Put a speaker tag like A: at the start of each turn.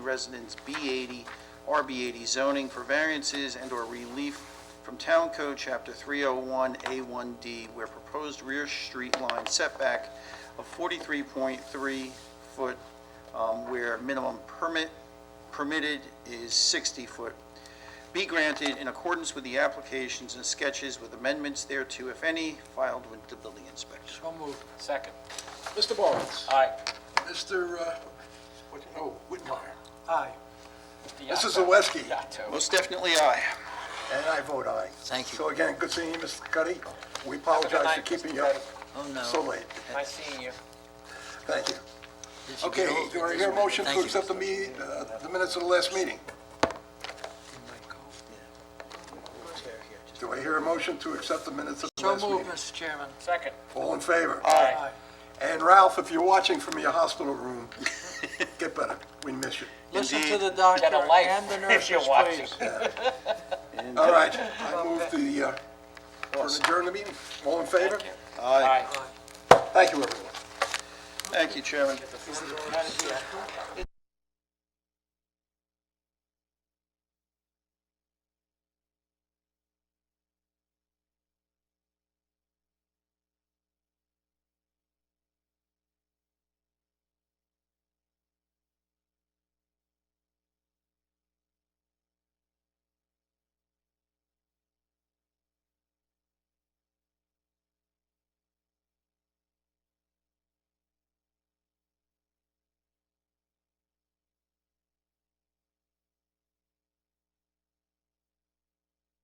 A: Residence B80, RB80 zoning for variances and/or relief from Town Code Chapter 301A1D, where proposed rear street line setback of 43.3 foot, um, where minimum permit, permitted is 60 foot, be granted in accordance with the applications and sketches with amendments thereto, if any, filed with the building inspector.
B: So moved.
C: Second.
B: Mr. Barnes.
C: Aye.
D: Mr. uh, what- Oh, Whitmire.
B: Aye.
D: Mr. Zawiski.
C: Yato.
A: Most definitely aye.
D: And I vote aye.
B: Thank you.
D: So again, good seeing you, Mr. Cuddy. We apologize for
C: night,
D: keeping
C: Mr.
D: you up
B: Oh, no.
D: so late.
C: Nice seeing you.
D: Thank you.
B: This is
D: Okay,
B: good.
D: do I hear a motion
B: Thank
D: to
B: you.
D: accept the meeting, uh, the minutes of the last meeting? Do I hear a motion to accept the minutes of the
B: So
D: last
B: moved,
D: meeting?
B: Mr. Chairman.
C: Second.
D: All in favor?
C: Aye.
D: And Ralph, if you're watching from your hospital room, get better. We miss you.
B: Listen to
A: Indeed.
B: the doctor
C: Get a life
B: and the
C: if you're
B: nurses,
C: watching.
B: please.
D: All
A: uh,
D: right, I move the, uh, for adjourn the meeting. All in favor?
C: Thank you.
A: Aye.
C: Aye.
D: Thank you, everyone.
A: Thank you, Chairman.